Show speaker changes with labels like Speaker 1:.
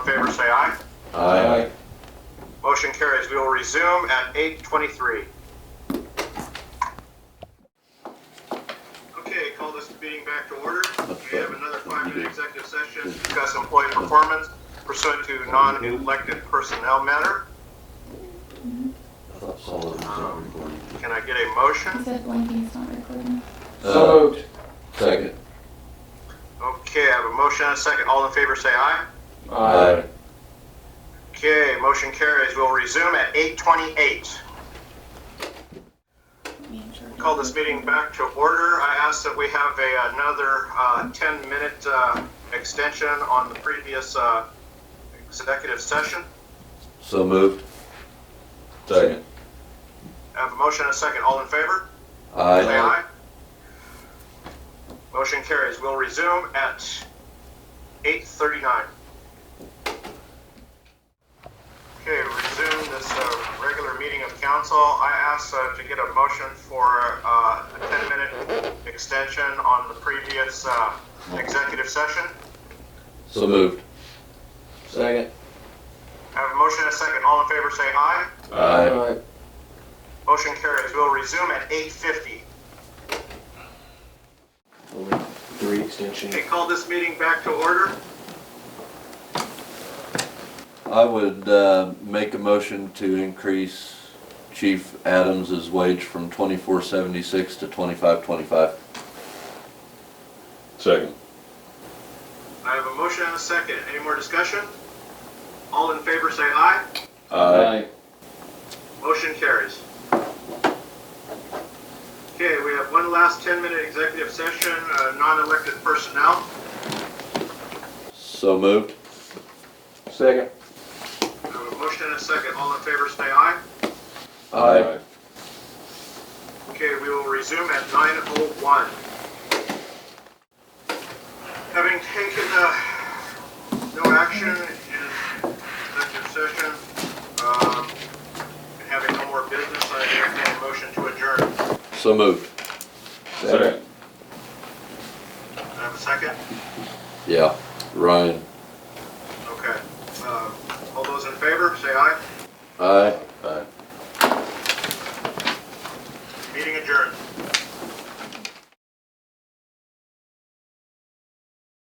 Speaker 1: aye.
Speaker 2: Aye.
Speaker 1: Motion carries. We will resume at 8:23. Okay, call this meeting back to order. We have another five-minute executive session to discuss employee performance pursuant to non-elected personnel matter.
Speaker 2: That's all of them are recording.
Speaker 1: Can I get a motion?
Speaker 3: Is it blinking? It's not recording.
Speaker 2: Uh,
Speaker 4: So moved.
Speaker 2: Second.
Speaker 1: Okay, I have a motion and a second. All in favor, say aye.
Speaker 4: Aye.
Speaker 1: Okay, motion carries. We'll resume at 8:28. Call this meeting back to order. I ask that we have a, another, uh, ten-minute, uh, extension on the previous, uh, executive session.
Speaker 2: So moved. Second.
Speaker 1: I Have a motion and a second. All in favor? Say
Speaker 2: Aye.
Speaker 1: aye. Motion carries. We'll resume at eight thirty-nine. Okay, resume this, uh, regular meeting of council. I ask, uh, to get a motion for, uh, a ten-minute extension on the previous, uh, executive session.
Speaker 2: So moved.
Speaker 4: Second.
Speaker 1: I have a motion and a second. All in favor, say aye.
Speaker 2: Aye.
Speaker 1: Motion carries. We'll resume at eight fifty.
Speaker 4: Only Three extension.
Speaker 1: Okay, call this meeting back to order.
Speaker 2: I would, uh, make a motion to increase Chief Adams's wage from twenty-four seventy-six to twenty-five twenty-five. Second.
Speaker 1: I have a motion and a second. Any more discussion? All in favor say aye.
Speaker 2: Aye.
Speaker 1: Motion carries. Okay, we have one last 10-minute executive session, uh, non-elected personnel.
Speaker 2: So moved.
Speaker 4: Second.
Speaker 1: I have a motion and a second. All in favor say aye.
Speaker 2: Aye.
Speaker 1: Okay, we will resume at 9:01. Having taken uh, no action in executive session, um, and having no more business, I entertain a motion to adjourn.
Speaker 2: So moved.
Speaker 4: Second.
Speaker 1: Do I have a second?
Speaker 2: Yeah, Ryan.
Speaker 1: Uh, Okay. Um, All those in favor, say aye.
Speaker 2: Aye.